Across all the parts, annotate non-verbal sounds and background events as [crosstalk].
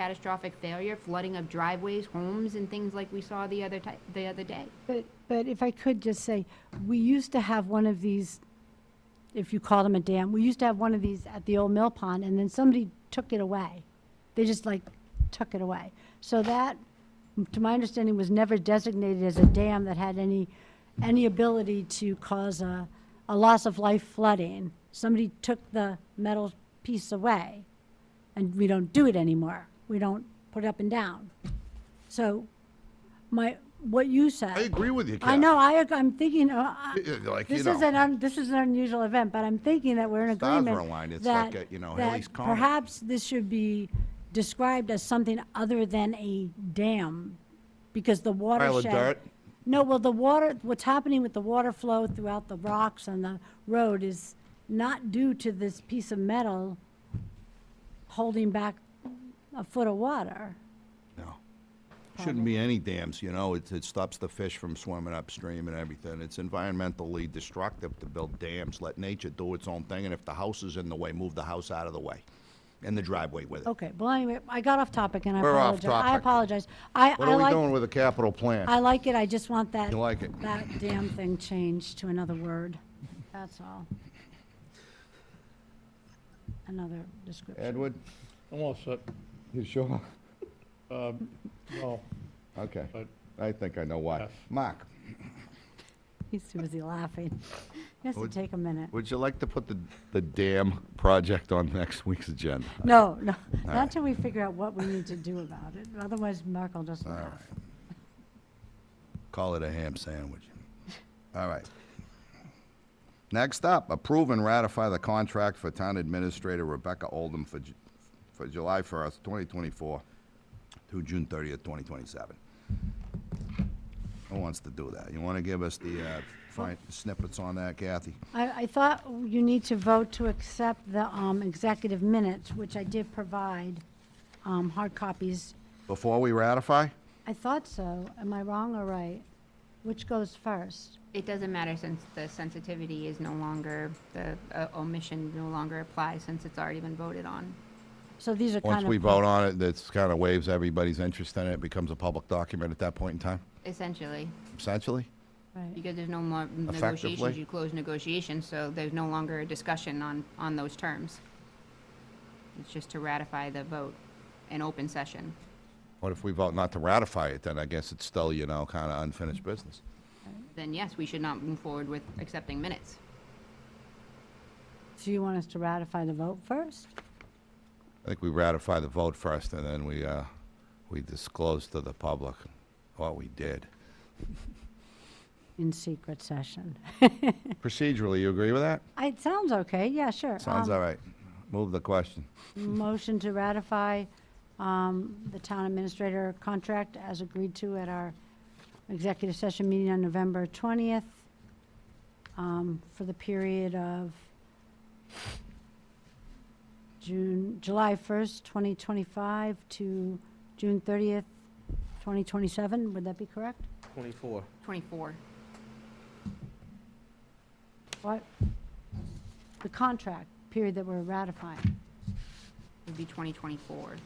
catastrophic failure, flooding of driveways, homes, and things like we saw the other ti- the other day. But, but if I could just say, we used to have one of these, if you call them a dam, we used to have one of these at the old mill pond, and then somebody took it away. They just like took it away. So that, to my understanding, was never designated as a dam that had any, any ability to cause a, a loss of life flooding. Somebody took the metal piece away, and we don't do it anymore. We don't put it up and down. So my, what you said. I agree with you, Kat. I know, I, ag- I'm thinking, uh, I- Yeah, [laughs] Like, you this is an, know, un- this is an unusual event, but I'm thinking that we're in Stars were agreement. aligned. It's that- like a, you know, that Halley's Comet. Perhaps this should be described as something other than a dam, because the watershed. dirt? No, well, the water, what's happening with the water flow throughout the rocks on the road is not due to this piece of metal holding back a foot of water. no. Shouldn't be any dams, you know, it, it stops the fish from swimming upstream and everything. It's environmentally destructive to build dams, let nature do its own thing, and if the house is in the way, move the house out of the way, and the driveway with it. Okay, well, anyway, I got off topic and I We're off apologize. I topic. apologize. I, I like. What are we doing with the capital I plan? like it, I just want that. You like it. That damn thing changed to another word, that's all. Another description. Edward? I'm all set. You sure? Um, No, Okay, but I think I know why. Yes. Mark, He's too busy laughing. He has to Would- take a minute. would you like to put the, the dam project on next week's agenda? No, no, right. not till we figure out what we need to do about it, otherwise Mark will just laugh. Call it a ham sandwich. All right. Next up, approve and ratify the contract for Town Administrator Rebecca Oldham for, Ju- for July 1st, 2024 through June 30th, 2027. Who wants to do that? You want to give us the uh, fine snippets on that, Kathy? I, I thought you need to vote to accept the um, executive minutes, which I did provide, um, hard copies. Before we ratify? I thought so, am I wrong or right? Which goes first? It doesn't matter since the sensitivity is no longer the uh, omission no longer applies since it's already been voted on. So these are kind of. Once we vote on it, that's kind of waives everybody's interest in it, becomes a public document at that point in time, Essentially, essentially? Right. because there's no more negotiations, Effectively. you close negotiations, so there's no longer a discussion on on those terms. It's just to ratify the vote in open session. What if we vote not to ratify it, then I guess it's still, you know, kind of unfinished business. Then yes, we should not move forward with accepting minutes. So you want us to ratify the vote first? I think we ratify the vote first, and then we, uh, we disclose to the public what we did. In secret session. Procedurally, you agree with that? [laughs] It sounds okay, yeah, sure. Sounds Um, all right. Move the question. [laughs] Motion to ratify um, the town administrator contract as agreed to at our executive session meeting on November 20th um, for the period of June, July 1st, 2025 to June 30th, 2027. Would that be correct? 24. Twenty-four. What? The contract period that we're ratifying. would be 2024.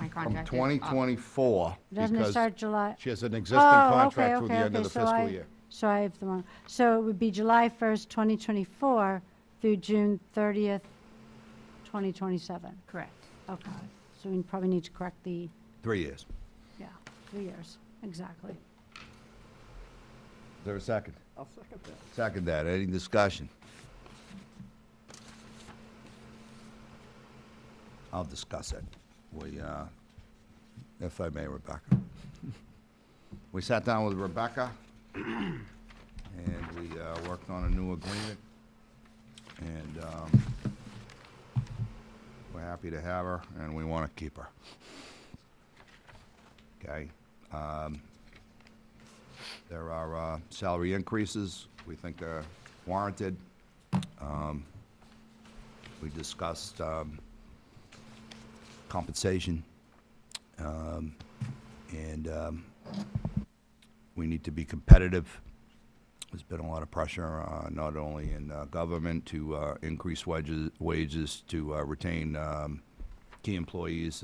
My From contract is up. 2024, Doesn't it because start July? she has an existing Oh, contract okay, through the okay, end okay, of the so I- fiscal year. So I have the wrong, so it would be July 1st, 2024 through June 30th, 2027. Correct. Okay, so we probably need to correct the, Three years. Is yeah, three years, exactly. there a second? I'll second that. Second that. Any discussion? I'll discuss it. We, uh, if I [laughs] may, Rebecca. We sat down with Rebecca, and we uh, worked on a new agreement, and um, we're happy to have her, and we want to keep her. Okay? Um, There are uh, salary increases. We think they're warranted. Um, We discussed um, compensation, um, and um, we need to be competitive. There's been a lot of pressure, uh, not only in uh, government, to uh, increase wages, wages to uh, retain um, key employees